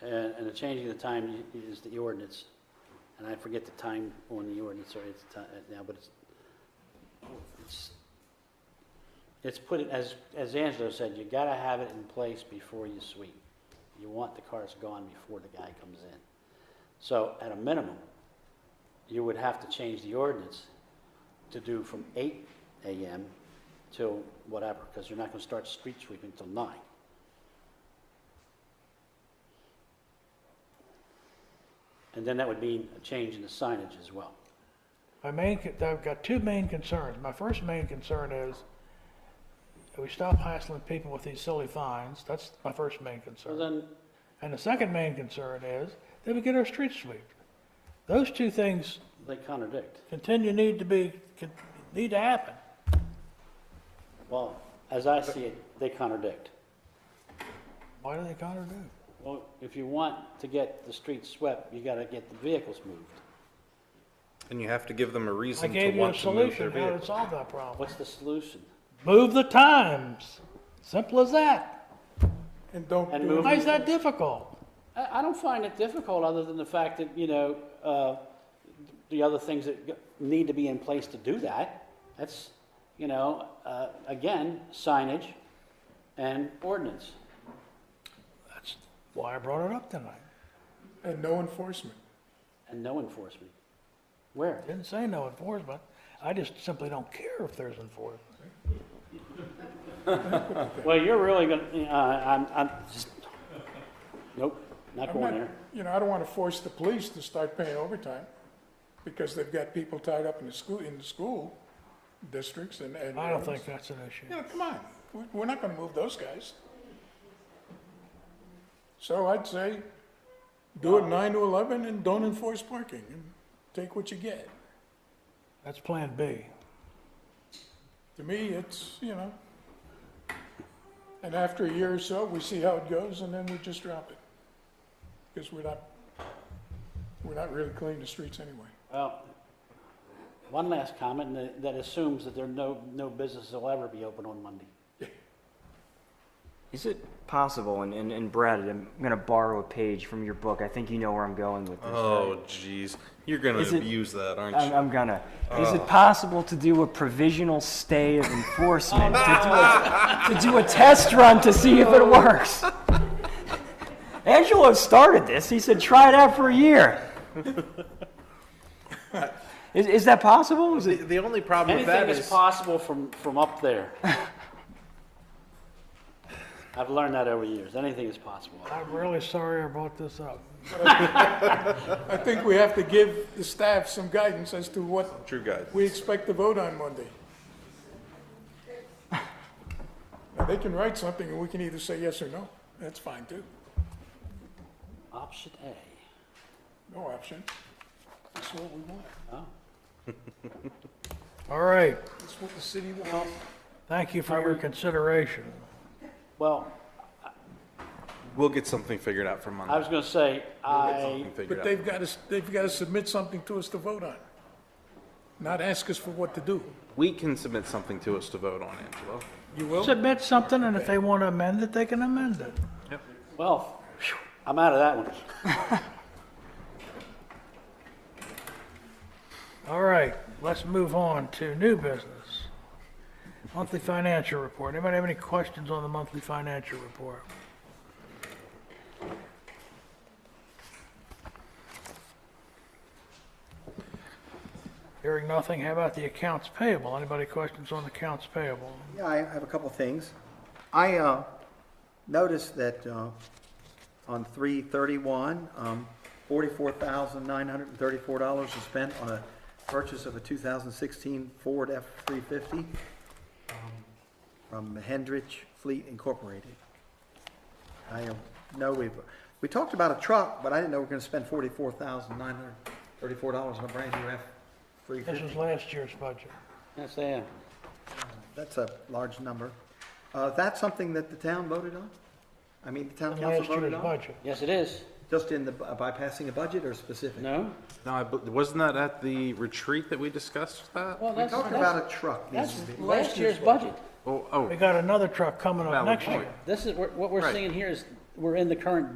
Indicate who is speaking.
Speaker 1: and, and the changing of the time i- is the ordinance. And I forget the time on the ordinance, or it's ti- uh, now, but it's, it's, it's put, it- as, as Angelo said, you gotta have it in place before you sweep. You want the cars gone before the guy comes in. So at a minimum, you would have to change the ordinance to do from eight AM till whatever, because you're not gonna start street sweeping till nine. And then that would mean a change in the signage as well.
Speaker 2: My main, con- I've got two main concerns. My first main concern is that we stop hassling people with these silly fines. That's my first main
Speaker 1: So
Speaker 2: concern.
Speaker 1: then,
Speaker 2: And the second main concern is that we get our streets swept. Those two things
Speaker 1: they contradict.
Speaker 2: continue need to be, con- need to happen.
Speaker 1: Well, as I see it, they contradict.
Speaker 2: Why do they contradict?
Speaker 1: Well, if you want to get the streets swept, you gotta get the vehicles moved.
Speaker 3: And you have to give them a
Speaker 2: I
Speaker 3: reason to
Speaker 2: gave you a
Speaker 3: want to move their
Speaker 2: solution how to
Speaker 3: vehicle.
Speaker 2: solve that problem.
Speaker 1: What's the solution?
Speaker 2: Move the times. Simple as that.
Speaker 4: And don't
Speaker 1: And
Speaker 4: do
Speaker 1: move-
Speaker 4: it.
Speaker 2: Why is that difficult?
Speaker 1: I, I don't find it difficult, other than the fact that, you know, uh, the other things that go- need to be in place to do that. That's, you know, uh, again, signage and ordinance.
Speaker 2: That's why I brought it up tonight.
Speaker 4: and no enforcement.
Speaker 1: And no enforcement. Where?
Speaker 2: Didn't say no enforcement. I just simply don't care if there's enforcement.
Speaker 1: Well, you're really gonna, uh, I'm, I'm, just- nope, not
Speaker 4: I'm
Speaker 1: going
Speaker 4: not,
Speaker 1: there.
Speaker 4: you know, I don't want to force the police to start paying overtime because they've got people tied up in the school, in the school districts and, and.
Speaker 2: I don't think that's an issue.
Speaker 4: You know, come on, We- we're not going to move those guys. So I'd say do it nine to 11 and don't enforce parking and take what you get.
Speaker 2: That's Plan B.
Speaker 4: To me, it's, you know, and after a year or so, we see how it goes, and then we just drop it. Because we're not, we're not really cleaning the streets anyway.
Speaker 1: Well, one last comment and that assumes that there are no, no businesses will ever be open on Monday.
Speaker 5: Is it possible, and, and, and Brad, I'm going to borrow a page from your book. I think you know where I'm going with this.
Speaker 3: Oh, jeez. You're going
Speaker 5: Is
Speaker 3: to
Speaker 5: it-
Speaker 3: abuse that, aren't
Speaker 5: I'm,
Speaker 3: you?
Speaker 5: I'm gonna. Is it possible to do a provisional stay of enforcement to, do a, to do a test run to see if it works? Angelo started this. He said, "Try it out for a year." is, is that possible? Is it?
Speaker 6: The only problem with
Speaker 1: Anything
Speaker 6: that
Speaker 1: is
Speaker 6: is,
Speaker 1: possible from, from up there. I've learned that over years. Anything is possible.
Speaker 2: I'm really sorry I brought this up.
Speaker 4: I think we have to give the staff some guidance as to what
Speaker 3: True guys.
Speaker 4: we expect to vote on Monday. Now, they can write something, and we can either say yes or no. That's fine, too.
Speaker 1: Option A.
Speaker 4: No option. That's what we want.
Speaker 1: Oh.
Speaker 2: All right.
Speaker 4: That's what the city wants.
Speaker 2: Thank you for your consideration.
Speaker 1: Well,
Speaker 3: We'll get something figured out for Monday.
Speaker 1: I was gonna say, I,
Speaker 3: Something figured
Speaker 4: But
Speaker 3: out.
Speaker 4: they've got to, they've got to submit something to us to vote on, not ask us for what to do.
Speaker 3: We can submit something to us to vote on, Angelo.
Speaker 4: You will?
Speaker 2: Submit something, and if they want to amend it, they can amend it.
Speaker 1: well, phew, I'm out of that one.
Speaker 2: All right, let's move on to new business. Monthly financial report. Anybody have any questions on the monthly financial report? Hearing nothing, how about the accounts payable? Anybody questions on accounts payable?
Speaker 7: Yeah, I have a couple of things. I uh, noticed that uh, on 331, um, $44,934 was spent on a purchase of a 2016 Ford F-350 um, from Hendrich Fleet Incorporated. I uh, know we've, we talked about a truck, but I didn't know we were going to spend $44,934 on a brand-new F-350.
Speaker 2: This is last year's budget.
Speaker 1: Yes, I am.
Speaker 7: That's a large number. Uh, that's something that the town voted on? I mean, the town
Speaker 2: In
Speaker 7: council
Speaker 2: last
Speaker 7: voted
Speaker 2: year's
Speaker 7: on?
Speaker 2: budget.
Speaker 1: Yes, it is.
Speaker 7: Just in the, by passing a budget or specific?
Speaker 1: No?
Speaker 3: No, I, bu- wasn't that at the retreat that we discussed that?
Speaker 1: Well,
Speaker 7: We
Speaker 1: that's,
Speaker 7: talked
Speaker 1: that's,
Speaker 7: about a truck. needs
Speaker 1: that's
Speaker 7: to be-
Speaker 1: last year's budget.
Speaker 3: Oh,
Speaker 2: We
Speaker 3: oh,
Speaker 2: got another truck coming up
Speaker 3: Valid
Speaker 2: next
Speaker 3: point.
Speaker 2: year.
Speaker 1: This is, what what we're
Speaker 3: Right.
Speaker 1: seeing here is, we're in the current